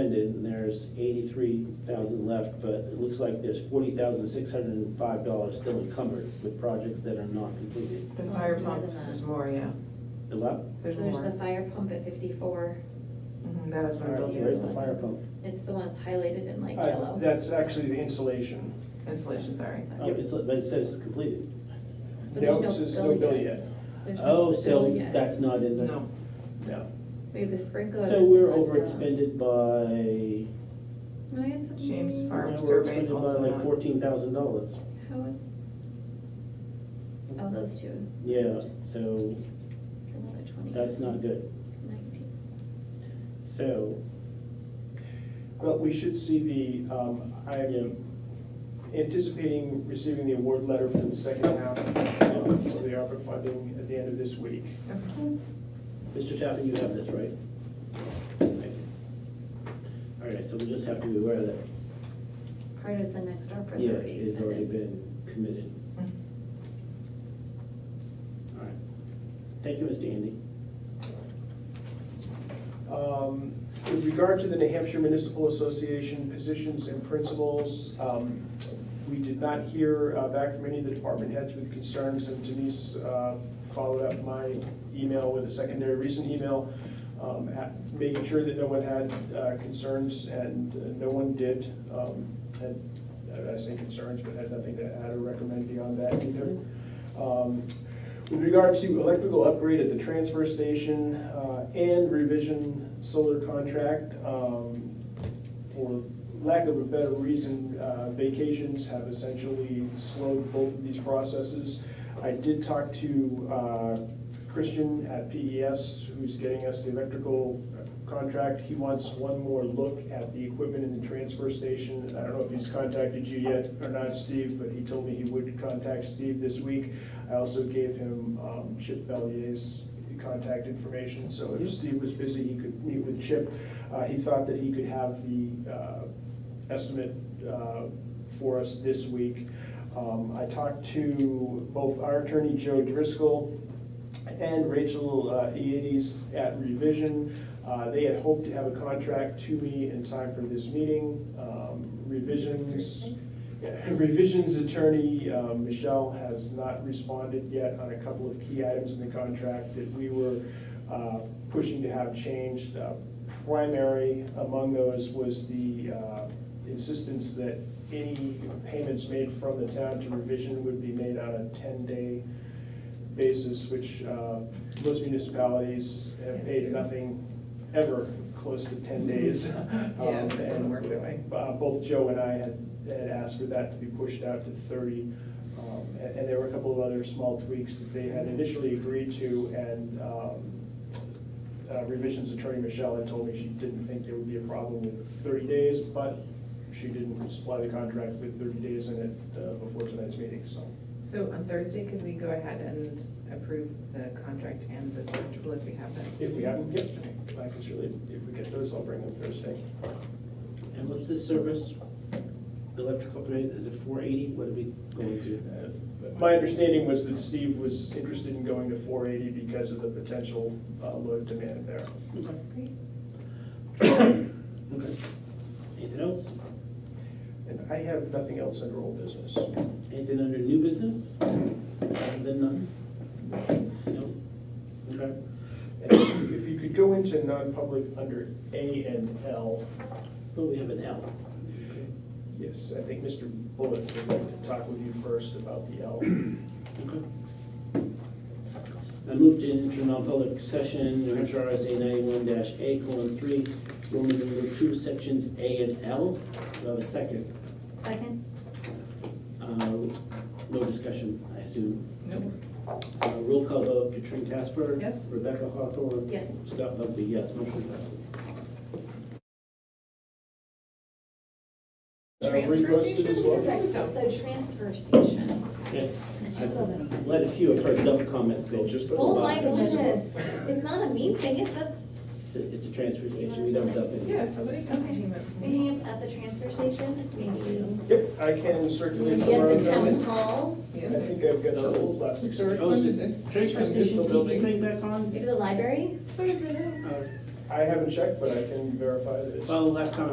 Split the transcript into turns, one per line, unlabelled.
expended, and there's eighty-three thousand left, but it looks like there's forty thousand six hundred and five dollars still encumbered with projects that are not completed.
The fire
More
pump,
than that.
there's more, yeah,
The left,
there's
There's the
more.
fire pump at fifty-four,
Mhm, That is what
fire-
it'll
where's the
do,
fire pump?
it's the one that's highlighted in like
Uh,
yellow.
That's actually the insulation.
insulation, sorry.
Oh, it's, but it says it's completed.
But
No,
there's
it says no bill yet.
So there's no
Oh,
bill
so
yet.
that's not in the.
No,
No.
We have the sprinkler.
So
that's
we're
not
over
done.
expended by,
No, it's-
James Farm
now we're
survey is
expended by
also
like
not.
fourteen thousand dollars.
How is? Oh, those two,
Yeah, so
it's another twenty.
that's not good.
Nineteen.
So,
But we should see the, um,
Yeah.
I'm anticipating receiving the award letter for the second half um, of the ARPA funding at the end of this week.
Mr. Tappan, you have this, right? Thank you. All right, so we just have to be aware that,
Part of the next ARPA is
yeah,
already
it's already
expended.
been committed.
Mhm.
All right. Thank you, Mr. Andy.
Um, With regard to the New Hampshire Municipal Association positions and principles, um, we did not hear uh, back from any of the department heads with concerns, and Denise uh, followed up my email with a secondary recent email, um, at- making sure that no one had uh, concerns, and uh, no one did. um, Had, I say concerns, but had nothing to add or recommend beyond that either. Um, With regard to electrical upgrade at the transfer station uh, and revision solar contract, um, for lack of a better reason, uh, vacations have essentially slowed both of these processes. I did talk to uh, Christian at PES, who's getting us the electrical contract. He wants one more look at the equipment in the transfer station. I don't know if he's contacted you yet or not, Steve, but he told me he would contact Steve this week. I also gave him um, Chip Bellier's contact information, so if Steve was busy, he could meet with Chip. Uh, He thought that he could have the uh, estimate uh, for us this week. Um, I talked to both our attorney, Joe Driscoll, and Rachel uh, Eades at Revision. Uh, They had hoped to have a contract to me in time for this meeting. Um, Revisions, yeah, Revisions attorney, um, Michelle, has not responded yet on a couple of key items in the contract that we were uh, pushing to have changed. Uh, Primary among those was the uh, insistence that any payments made from the town to revision would be made on a 10-day basis, which uh, most municipalities have paid nothing ever close to 10 days.
Yeah,
Um,
it doesn't
and
work that way.
uh, Both Joe and I had, had asked for that to be pushed out to thirty. um, And, and there were a couple of other small tweaks that they had initially agreed to, and um, uh, revisions attorney Michelle had told me she didn't think there would be a problem with thirty days, but she didn't supply the contract with thirty days in it uh, before tonight's meeting, so.
So on Thursday, could we go ahead and approve the contract and the schedule if we have that?
If we haven't, yep, I can surely, if we get those, I'll bring them Thursday.
And what's this service? The electrical rate, is it four eighty? What are we going to?
My understanding was that Steve was interested in going to four eighty because of the potential uh, load demand there.
Okay. Anything else?
And I have nothing else under old business.
Anything under new business? Then none? No? Okay.
And If you could go into non-public under A and L.
Well, we have an L.
Yes, I think Mr. Bullock would like to talk with you first about the L.
Okay. I moved into non-public session, New Hampshire RSA ninety-one dash A colon three, Roman number two, sections A and L. Do I have a second?
Second,
Uh, No discussion, I assume.
No.
Uh, Roll call vote, Katrine Casper.
Yes.
Rebecca Hawthorne.
yes.
Scott Bugby, yes, motion passes.
Uh, reposted as well.
The transfer station.
Yes.
just saw that.
Let a few of her dumb comments go.
Just posted.
Oh my
It's
goodness,
just-
it's not a mean thing, it's, that's,
It's a- it's a transfer station, we don't dump it.
Yeah, somebody can
Okay.
name it.
maybe at the transfer station, maybe
Yep, I can circulate
maybe
some
at
around.
the town hall,
I
Yeah.
think I've got a little plastic.
Oh, is the transfer station TV thing back on?
maybe the library.
Uh,
I haven't checked, but I can verify that it's.
Well, last time